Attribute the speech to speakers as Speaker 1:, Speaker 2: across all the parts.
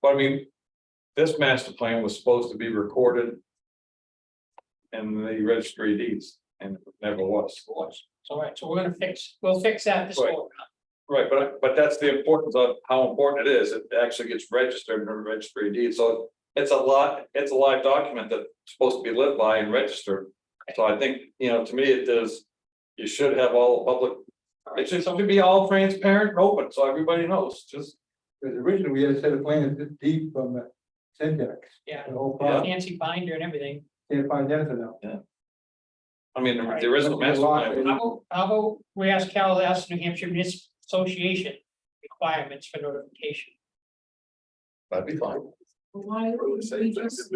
Speaker 1: But I mean, this master plan was supposed to be recorded. In the registry of deeds and it never was.
Speaker 2: was. All right, so we're gonna fix, we'll fix that this
Speaker 1: Right.
Speaker 2: fall.
Speaker 1: Right, but but that's the importance of how important it is. It actually gets registered in the registry of deeds, so. It's a lot, it's a live document that's supposed to be lived by and registered. So I think, you know, to me, it does. You should have all public. It should something be all transparent and open, so everybody knows, just.
Speaker 3: Because originally we had a set of plans this deep from the syntax,
Speaker 2: Yeah,
Speaker 3: the whole
Speaker 1: Yeah.
Speaker 3: part,
Speaker 2: fancy binder and everything.
Speaker 3: can't find anything now.
Speaker 1: I mean, the the original master plan.
Speaker 2: How about, how about we ask Cal, ask New Hampshire Municipal Association requirements for notification?
Speaker 1: That'd be fine.
Speaker 4: Why wouldn't we just,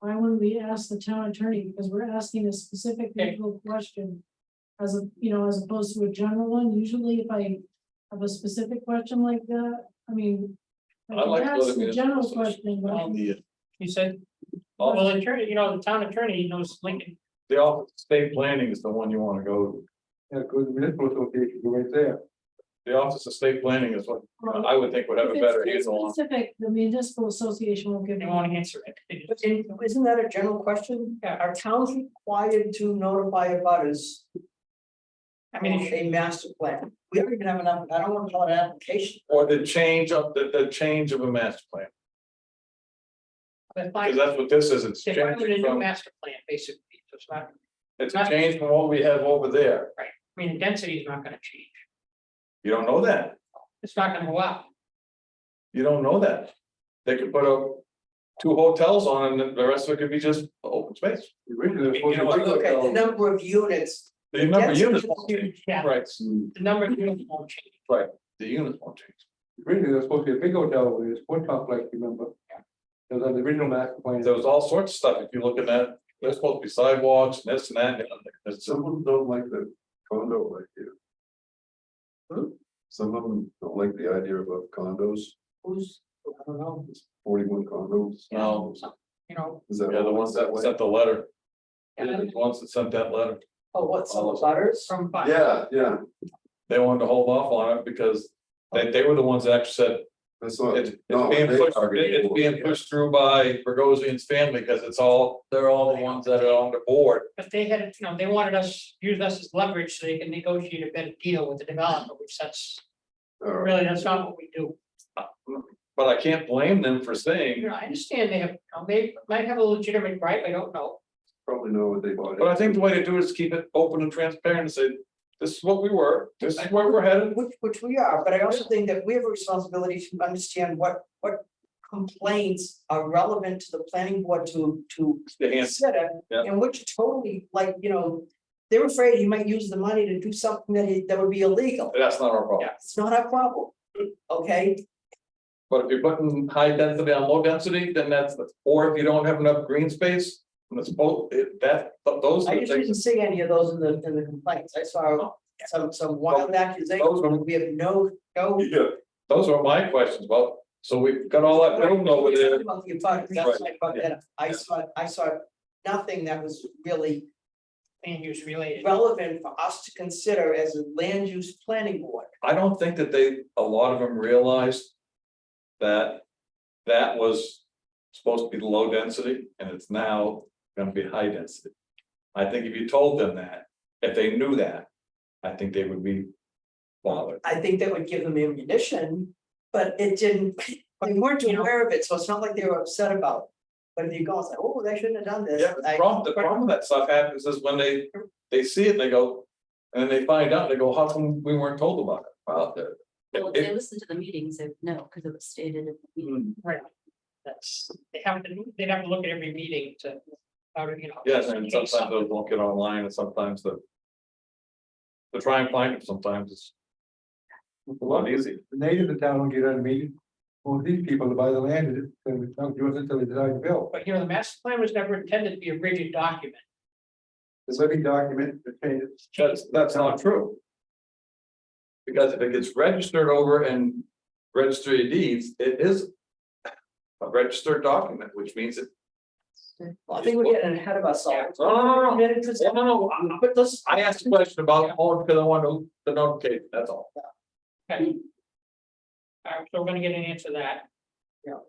Speaker 4: why wouldn't we ask the town attorney, because we're asking a specific
Speaker 2: Okay.
Speaker 4: legal question. As a, you know, as opposed to a general one, usually if I have a specific question like that, I mean.
Speaker 1: I like
Speaker 4: can
Speaker 1: the
Speaker 4: ask the
Speaker 1: municipal
Speaker 4: General
Speaker 1: association. Um,
Speaker 4: question, but
Speaker 2: You said, well, well, attorney, you know, the town attorney knows Lincoln,
Speaker 1: The office, state planning is the one you wanna go, to.
Speaker 3: Yeah, because the uh, municipal association, go right there.
Speaker 1: the office of state planning is what I would think would have a
Speaker 4: if
Speaker 1: better
Speaker 4: it's
Speaker 1: handle
Speaker 4: too
Speaker 1: on.
Speaker 4: specific, the municipal association will give.
Speaker 2: they
Speaker 4: you
Speaker 2: won't answer it. They
Speaker 5: But
Speaker 2: just-
Speaker 5: in- isn't that a general question?
Speaker 2: Yeah.
Speaker 5: Are towns required to notify abutters
Speaker 2: I mean,
Speaker 5: on
Speaker 2: it should-
Speaker 5: a master plan? We don't even have enough, I don't wanna call it an application.
Speaker 1: Or the change of, the, the change of a master plan,
Speaker 2: but
Speaker 1: because
Speaker 2: like,
Speaker 1: that's what this is, it's
Speaker 2: they wanted a
Speaker 1: changing
Speaker 2: new
Speaker 1: from,
Speaker 2: master plan, basically, so it's not,
Speaker 1: it's a change from what we have over there.
Speaker 2: I mean, the density is not gonna change,
Speaker 1: You don't know that,
Speaker 2: it's not gonna go up.
Speaker 1: you don't know that. They could put up two hotels on and the rest of it could be just open space.
Speaker 3: The original was supposed to
Speaker 1: You know what,
Speaker 3: be-
Speaker 5: Look at the number of units.
Speaker 1: The number of
Speaker 5: Yes.
Speaker 1: units, won't change.
Speaker 2: Yeah.
Speaker 1: right,
Speaker 2: The number of units won't change,
Speaker 1: the units won't change.
Speaker 3: Originally, there was supposed to be a big hotel over there, sport complex, remember? It was on the original master plan.
Speaker 1: There was all sorts of stuff, if you look at that, there's supposed to be sidewalks, and this and that, and it's just.
Speaker 3: Some of them don't like the condo idea. Some of them don't like the idea of condos,
Speaker 5: Who's, I don't know,
Speaker 3: forty-one condos.
Speaker 1: No.
Speaker 2: you know,
Speaker 3: Is that
Speaker 1: Yeah, the ones that sent the letter.
Speaker 2: Yeah.
Speaker 1: Yeah, the ones that sent that letter, Um,
Speaker 5: oh, what, some abutters?
Speaker 2: from. five.
Speaker 3: Yeah, yeah,
Speaker 1: they wanted to hold off on it because they, they were the ones that actually said.
Speaker 3: that's
Speaker 1: It's, it's being pushed, it- it's being pushed through by Burgosian's family, because it's all, they're all the ones that are on the board.
Speaker 2: But they had, you know, they wanted us, use us as leverage so they can negotiate a better deal with the developer, which that's really, that's not what we do.
Speaker 1: But I can't blame them for saying,
Speaker 2: You know, I understand they have, you know, they might have a legitimate right, I don't know.
Speaker 3: Probably know what they bought.
Speaker 1: but I think the way to do it is keep it open and transparent and say, this is what we were, this is where we're headed.
Speaker 5: Which, which we are, but I also think that we have a responsibility to understand what, what complaints are relevant to the planning board to, to
Speaker 1: The hand-
Speaker 5: consider,
Speaker 1: Yeah.
Speaker 5: and which totally, like, you know, they're afraid he might use the money to do something that he, that would be illegal.
Speaker 1: that's not our problem,
Speaker 5: It's not our problem, okay?
Speaker 1: but if you're putting high density on low density, then that's, or if you don't have enough green space. And it's both, it, that, those are
Speaker 5: I
Speaker 1: the
Speaker 5: just
Speaker 1: things,
Speaker 5: didn't see any of those in the, in the complaints, I saw some, some wild accusations,
Speaker 1: those are
Speaker 5: but we have no, no.
Speaker 1: Yeah, those are my questions, well, so we've got all that room over there,
Speaker 5: About the abutters, that's my point, and I saw, I saw nothing that was really
Speaker 2: Land use related.
Speaker 5: relevant for us to consider as a land use planning board.
Speaker 1: I don't think that they, a lot of them realized. That, that was supposed to be low density, and it's now gonna be high density. I think if you told them that, if they knew that, I think they would be bothered.
Speaker 5: I think that would give them ammunition, but it didn't, they weren't
Speaker 2: You know-
Speaker 5: aware of it, so it's not like they were upset about. it. But if you go, it's like, oh, they shouldn't have done this.
Speaker 1: Yeah, but the
Speaker 5: I-
Speaker 1: problem, the problem with that stuff happens is when they, they see it, they go. And then they find out, they go, how come we weren't told about it? Well, the-
Speaker 6: Well, if
Speaker 1: it-
Speaker 6: they listened to the meetings, they would know, because it was stated in the meeting.
Speaker 2: Right. That's, they have to, they'd have to look at every meeting to, how to, you know.
Speaker 1: Yes, and
Speaker 2: change
Speaker 1: sometimes
Speaker 2: something.
Speaker 1: those won't get online and sometimes the. To try and find it sometimes is a lot easier.
Speaker 3: The natives of town don't get on meeting, well, these people to buy the land, it's gonna be not yours until they decide to build.
Speaker 2: But you know, the master plan was never intended to be a rigid document.
Speaker 3: The living document, the changes.
Speaker 1: That's, that's not true. Because if it gets registered over in registry of deeds, it is. A registered document, which means it,
Speaker 5: Well, I think we're getting ahead of
Speaker 1: no, no, no, no,
Speaker 5: ourselves.
Speaker 1: no, no, I'm not-
Speaker 5: But this,
Speaker 1: I asked a question about, oh, because I want to, the notification, that's all.
Speaker 2: Okay. All right, so we're gonna get an answer to that.
Speaker 5: Yeah.